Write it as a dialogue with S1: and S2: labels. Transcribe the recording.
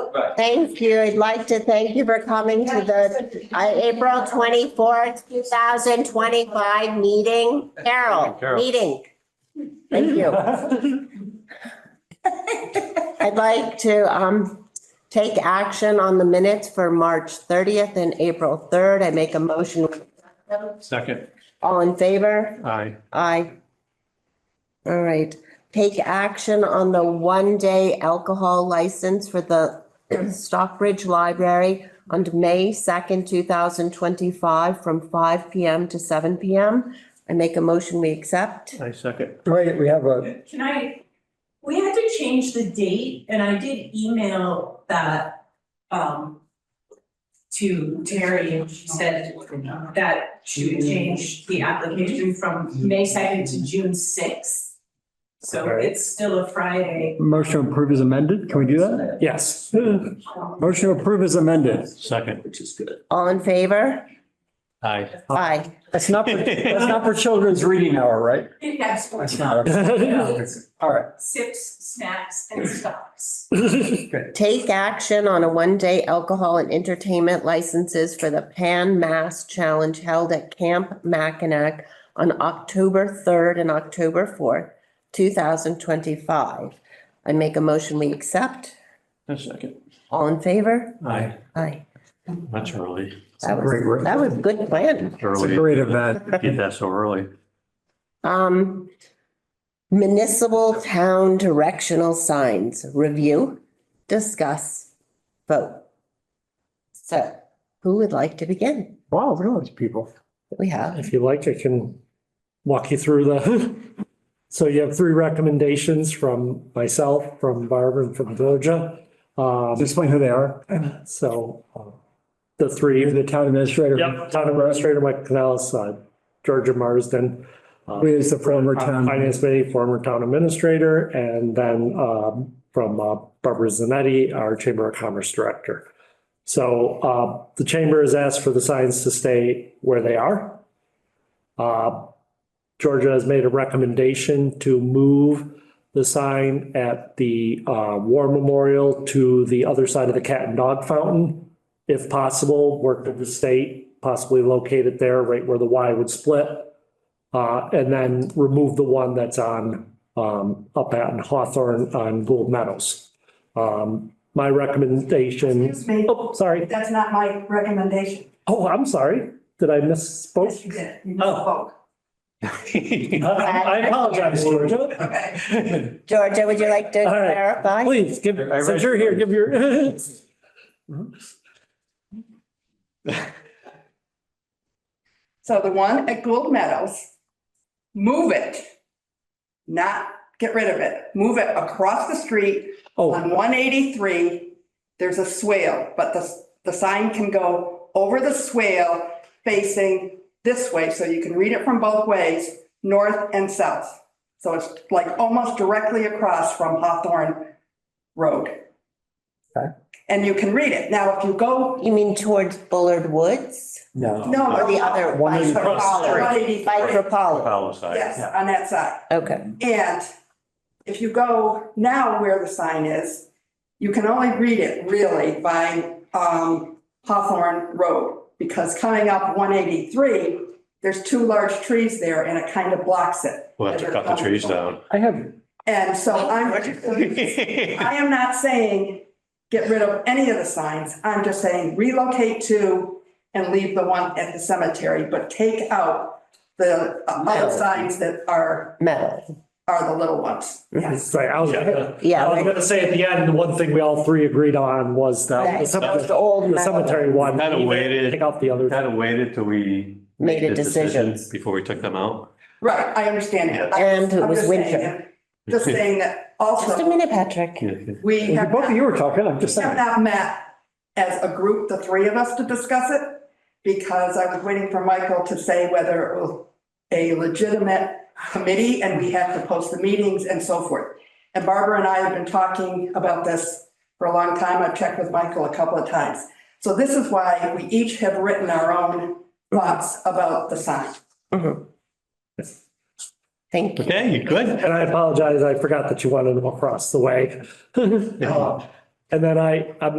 S1: Right.
S2: Thank you. I'd like to thank you for coming to the uh, April twenty-fourth, two thousand twenty-five meeting. Carol,
S3: Carol.
S2: meeting. Thank you. I'd like to um take action on the minutes for March thirtieth and April third. I make a motion.
S3: Second,
S2: All in favor?
S3: aye.
S2: Aye. All right, take action on the one-day alcohol license for the Stockbridge Library on May second, two thousand twenty-five, from five PM to seven PM. I make a motion, we accept.
S3: I second.
S4: Wait, we have a,
S5: Can I, we had to change the date and I did email that um to Terry and she said that she would change the application from May second to June sixth. So
S4: Okay.
S5: it's still a Friday.
S4: motion to approve is amended. Can we do that? Yes. Motion to approve is amended.
S3: Second,
S6: which is good.
S2: All in favor?
S3: aye.
S2: Aye.
S4: That's not, for- that's not for children's reading hour, right?
S5: Yes,
S4: That's not. All right.
S5: sips, snacks and stocks.
S2: Take action on a one-day alcohol and entertainment licenses for the Pan Mass Challenge held at Camp Mackinac on October 3rd and October 4th, 2025. I make a motion, we accept.
S3: A second,
S2: All in favor?
S3: aye.
S2: Aye.
S3: That's early.
S2: That was,
S4: Great work.
S2: that was good plan.
S4: It's a
S3: Early.
S4: great event.
S3: Get that so early.
S2: Um, municipal town directional signs, review, discuss, vote. So who would like to begin?
S4: Wow, look at all these people.
S2: We have.
S7: If you like, I can walk you through the, so you have three recommendations from myself, from Barbara, and from Georgia. Um,
S4: Explain who they are.
S7: So uh, the three.
S4: You're the town administrator.
S7: Yep, town administrator Mike Canales, uh, Georgia Marsden. uh,
S4: Who is the former town-
S7: Finance committee, former town administrator, and then um, from uh, Barbara Zanetti, our Chamber of Commerce Director. So uh, the chamber has asked for the signs to stay where they are. Uh, Georgia has made a recommendation to move the sign at the uh, War Memorial to the other side of the cat and dog fountain if possible, work with the state, possibly locate it there, right where the Y would split. Uh, and then remove the one that's on, um, up at Hawthorne on Gold Meadows. Um, my recommendation,
S8: Excuse me,
S7: oh, sorry,
S8: that's not my recommendation.
S7: oh, I'm sorry, did I misspoke?
S8: Yes, you did. You
S7: Oh.
S8: misspoke.
S7: I- I apologize, Georgia.
S8: Okay.
S2: Georgia, would you like to
S7: All right.
S2: clarify?
S7: Please, give,
S3: I read
S7: since you're here, give your,
S8: So the one at Gold Meadows, move it. Not get rid of it. Move it across the street on
S7: oh,
S8: one eighty-three. There's a swale, but the, the sign can go over the swale facing this way, so you can read it from both ways, north and south. So it's like almost directly across from Hawthorne Road.
S4: Okay.
S8: And you can read it. Now, if you go,
S2: You mean towards Bullard Woods
S4: No.
S8: no.
S2: or the other
S4: One
S2: by
S4: is
S8: across the
S2: Kropoller?
S8: street.
S2: By Kropoller.
S3: Palisade.
S8: Yes, on that side.
S2: Okay.
S8: And if you go now where the sign is, you can only read it really by um Hawthorne Road. Because coming up one eighty-three, there's two large trees there and it kind of blocks it.
S3: We'll have to cut the trees down.
S4: I have,
S8: And so I'm, I am not saying get rid of any of the signs. I'm just saying relocate to and leave the one at the cemetery, but take out the other signs that are
S2: Metal.
S8: are the little ones. Yes.
S7: sorry, I was gonna- I was
S2: Yeah.
S7: gonna say at the end, the one thing we all three agreed on was that.
S2: That that was the old
S7: The
S2: metal.
S7: cemetery one.
S3: Kinda waited.
S7: Take out the others.
S3: Kind of waited till we.
S2: Made a
S3: the
S2: decision.
S3: Before we took them out.
S8: Right, I understand that.
S2: And it
S8: I'm
S2: was
S8: just saying
S2: winter.
S8: that- Just saying that
S2: Just a
S8: also,
S2: minute, Patrick.
S8: we have
S4: both of
S8: not,
S4: you were talking, I'm just
S8: we have
S4: saying.
S8: not met as a group, the three of us, to discuss it. Because I was waiting for Michael to say whether it was a legitimate committee and we have to post the meetings and so forth. And Barbara and I have been talking about this for a long time. I've checked with Michael a couple of times. So this is why we each have written our own thoughts about the sign.
S2: Thank you.
S3: Okay, you good?
S7: And I apologize, I forgot that you wanted them across the way. Um, Uh, And then I, I'm